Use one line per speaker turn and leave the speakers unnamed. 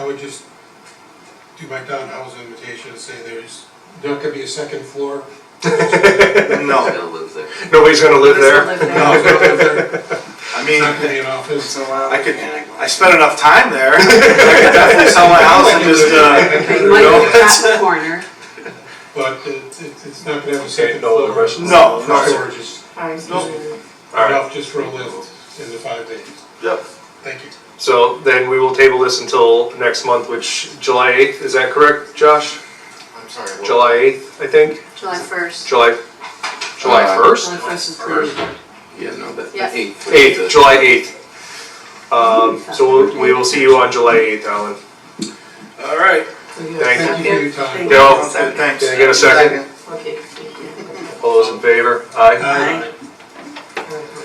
would just do my Don Howes invitation and say there's, there could be a second floor.
No,
Still lives there.
Nobody's gonna live
Let's
there.
not live there.
No, it's not gonna be there.
I
It's
mean,
not gonna be an office.
I could, I spent enough time there, I could definitely sell my house and just, uh,
They might
No,
have got the corner.
But it, it- it's not gonna have a
Say
second
no to the
floor.
Russians.
no,
No
no.
storages,
I
Nope.
All right,
enough just for a lift in the five days.
Yep.
Thank you.
so then we will table this until next month, which, July 8th, is that correct, Josh?
I'm sorry. what-
July 8th, I think,
July first.
July, July
Uh,
1st?
July first is the.
Yeah, no, but
Yeah.
the eighth. would be
8th,
the-
July 8th. Um, so we'll- we will see you on July 8th, Alan.
All right.
Thank
Thank you for your time.
Dale,
Okay, thanks.
can I get a second?
Okay, thank you.
All those in favor? Aye.
Aye.